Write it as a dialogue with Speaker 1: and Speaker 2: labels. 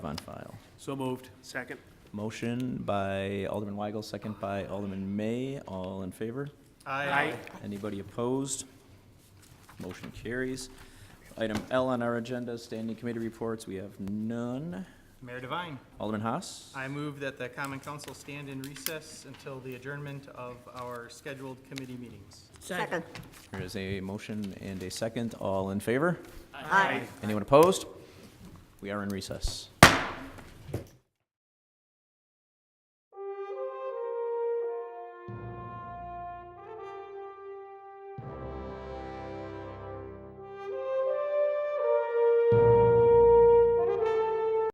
Speaker 1: on file.
Speaker 2: So moved. Second.
Speaker 1: Motion by Alderman Weigel, second by Alderman May. All in favor?
Speaker 2: Aye.
Speaker 1: Anybody opposed? Motion carries. Item L on our agenda, standing committee reports. We have none.
Speaker 3: Mayor Devine,
Speaker 1: Alderman Haas?
Speaker 3: I move that the common council stand in recess until the adjournment of our scheduled committee meetings.
Speaker 4: Second.
Speaker 1: There is a motion and a second. All in favor?
Speaker 2: Aye.
Speaker 1: Anyone opposed? We are in recess.